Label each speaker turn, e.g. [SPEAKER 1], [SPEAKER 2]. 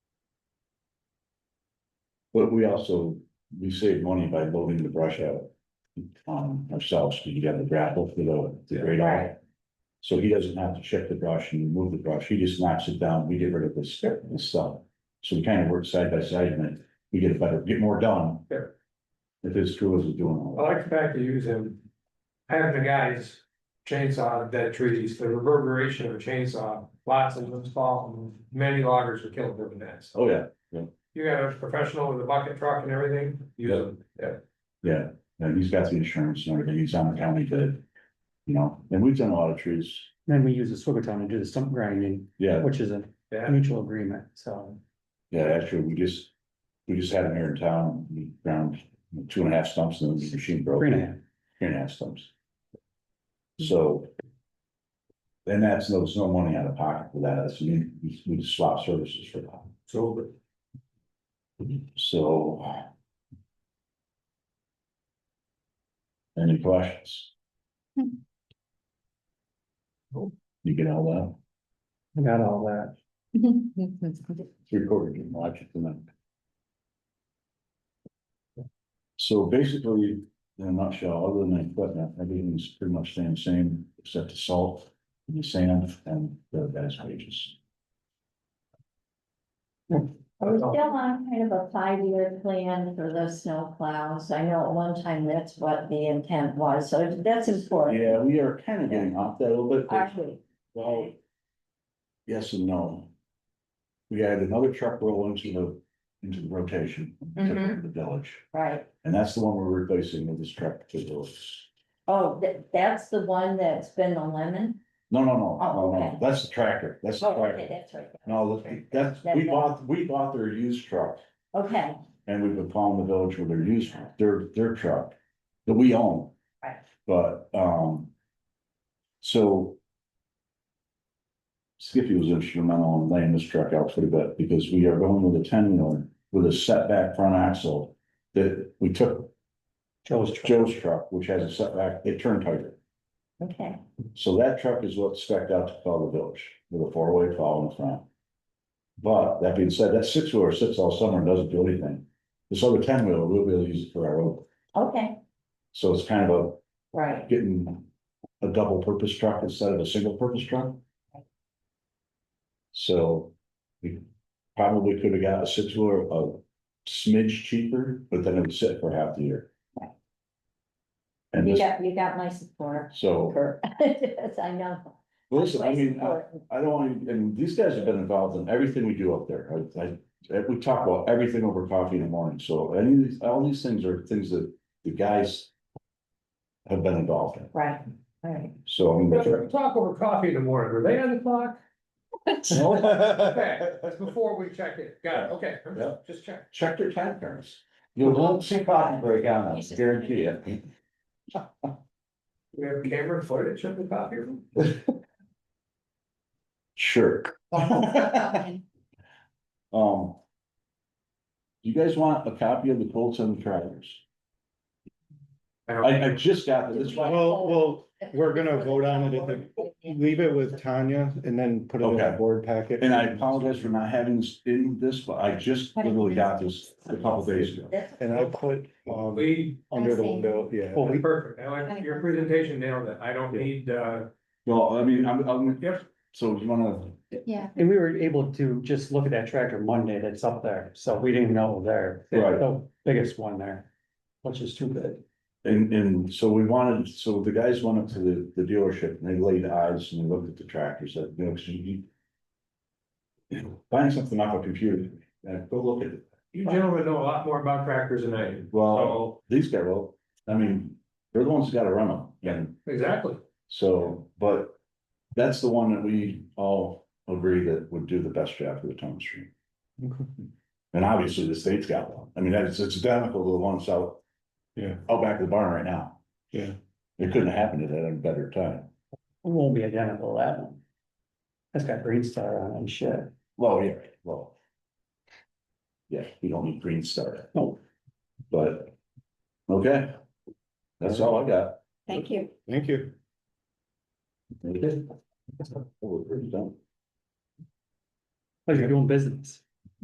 [SPEAKER 1] But we also, we save money by loading the brush out. Um, ourselves, because you have the grapple for the, the radar. So he doesn't have to check the brush and remove the brush, he just knocks it down, we get rid of this, this stuff. So we kind of work side by side and then we get a better, get more done.
[SPEAKER 2] Sure.
[SPEAKER 1] If his crew isn't doing all
[SPEAKER 2] I like the fact you use him. Having the guys chainsaw dead trees, the reverberation of a chainsaw, lots of them fall, and many loggers were killed doing that.
[SPEAKER 1] that, oh yeah,
[SPEAKER 2] You got a professional with a bucket truck and everything, use them.
[SPEAKER 1] yeah, and he's got the insurance and everything, he's on the county bid. You know, and we've done a lot of trees,
[SPEAKER 3] Then we use a swivel tone to do the stump grinding,
[SPEAKER 1] yeah,
[SPEAKER 3] which is a
[SPEAKER 2] Yeah,
[SPEAKER 3] mutual agreement, so.
[SPEAKER 1] yeah, actually, we just. We just had him here in town, we ground two and a half stumps and then the machine broke.
[SPEAKER 3] Three and a half,
[SPEAKER 1] Three and a half stumps. So. And that's, no, there's no money out of pocket for that, that's, we, we just swap services for that. So. So. Any questions?
[SPEAKER 4] Hmm.
[SPEAKER 1] You get all
[SPEAKER 3] I got all that.
[SPEAKER 1] that, recorded and watch it tonight. So basically, in a nutshell, other than the equipment, everything's pretty much staying the same, except the salt, and the sand, and the gas wages.
[SPEAKER 4] We're still on kind of a five-year plan for the snow plows. I know at one time that's what the intent was, so that's important.
[SPEAKER 1] Yeah, we are kind of getting off that a little bit, but,
[SPEAKER 4] Actually,
[SPEAKER 1] well, yes and no. We had another truck roll into the, into the rotation, took it
[SPEAKER 4] Mm-hmm.
[SPEAKER 1] to the village,
[SPEAKER 4] right.
[SPEAKER 1] and that's the one we're replacing with this truck to the village.
[SPEAKER 4] Oh, that, that's the one that's been the lemon?
[SPEAKER 1] No, no, no,
[SPEAKER 4] Oh,
[SPEAKER 1] no, no,
[SPEAKER 4] okay.
[SPEAKER 1] that's the tractor, that's the
[SPEAKER 4] Oh, okay,
[SPEAKER 1] tractor,
[SPEAKER 4] that's right.
[SPEAKER 1] no, look, that's, we bought, we bought their used truck.
[SPEAKER 4] Okay,
[SPEAKER 1] And we've been following the village with their use, their, their truck that we own,
[SPEAKER 4] right.
[SPEAKER 1] but, um. So. Skippy was instrumental in laying this truck out pretty good because we are going with a ten wheeler with a setback front axle. That we took
[SPEAKER 3] Joe's truck.
[SPEAKER 1] Joe's truck, which has a setback, it turned tighter.
[SPEAKER 4] Okay,
[SPEAKER 1] So that truck is what's spec'd out to follow the village with a four-way plow in the front. But that being said, that six-wheeler sits all summer and doesn't do anything. This other ten-wheeler, we'll be able to use it for our road.
[SPEAKER 4] okay,
[SPEAKER 1] So it's kind of a
[SPEAKER 4] right.
[SPEAKER 1] getting a double purpose truck instead of a single purpose truck. So we probably could have got a six wheeler a smidge cheaper, but then it would sit for half the year. And
[SPEAKER 4] You
[SPEAKER 1] this,
[SPEAKER 4] got, you got my support.
[SPEAKER 1] so,
[SPEAKER 4] Kurt. Yes, I know.
[SPEAKER 1] listen, I
[SPEAKER 4] My
[SPEAKER 5] uh,
[SPEAKER 1] mean, I-
[SPEAKER 4] support.
[SPEAKER 1] I don't, want to- and these guys have been involved in everything we do up there. I, I, we talk about everything over coffee in the morning, so any of these, all these things are things that the guys have been involved in,
[SPEAKER 4] Right, right.
[SPEAKER 1] so. I mean, the truck-
[SPEAKER 2] We talk over coffee in the morning, were they on the clock? Okay, that's before we check it, got it, okay,
[SPEAKER 1] Yeah.
[SPEAKER 2] just check.
[SPEAKER 1] Check their time cards. You'll not see cotton break on us, guarantee it.
[SPEAKER 2] We have camera footage of the coffee room?
[SPEAKER 1] Sure. Um. You guys want a copy of the Colts and the Travelers? I, I just got this, that's why,
[SPEAKER 5] Well, well, we're gonna vote on it at the- leave it with Tanya and then put it in
[SPEAKER 1] Okay.
[SPEAKER 5] the board packet.
[SPEAKER 1] and I apologize for not having this in this, but I just literally got this a couple days ago.
[SPEAKER 4] That's-
[SPEAKER 5] And I put, um,
[SPEAKER 2] We,
[SPEAKER 5] under the window, yeah.
[SPEAKER 3] Well,
[SPEAKER 1] um,
[SPEAKER 3] we,
[SPEAKER 2] perfect, I like your presentation nailed it, I don't need, uh,
[SPEAKER 1] Well, I mean, I'm, I'm,
[SPEAKER 2] Yep.
[SPEAKER 1] so you wanna,
[SPEAKER 4] Yeah.
[SPEAKER 3] and we were able to just look at that tractor Monday that's up there, so we didn't know there.
[SPEAKER 1] Right.
[SPEAKER 3] The biggest one there, which is too big.
[SPEAKER 1] and, and so we wanted, so the guys went up to the, the dealership and they laid eyes and they looked at the tractors that, you know, 'cause you- you. Buying something off a computer, uh, go look at it.
[SPEAKER 2] you gentlemen know a lot more about tractors than I do.
[SPEAKER 1] Well,
[SPEAKER 2] So,
[SPEAKER 1] these guys, well, I mean, they're the ones that gotta run them, and
[SPEAKER 2] exactly,
[SPEAKER 1] so, but. That's the one that we all agree that would do the best job for the town stream.
[SPEAKER 5] Okay.
[SPEAKER 1] And obviously the state's got one, I mean, that's, it's identical to the ones out.
[SPEAKER 5] Yeah.
[SPEAKER 1] Out back of the barn right now.
[SPEAKER 5] Yeah.
[SPEAKER 1] It couldn't happen at a better time,
[SPEAKER 3] It won't be identical to that one. That's got Green Star on it and shit.
[SPEAKER 1] well, yeah, right, well. Yeah, we don't need Green Star.
[SPEAKER 3] No.
[SPEAKER 1] But, okay, that's all I got.
[SPEAKER 4] Thank you.
[SPEAKER 5] Thank you.
[SPEAKER 1] Okay. Oh, We're pretty done.
[SPEAKER 3] Like you're doing business.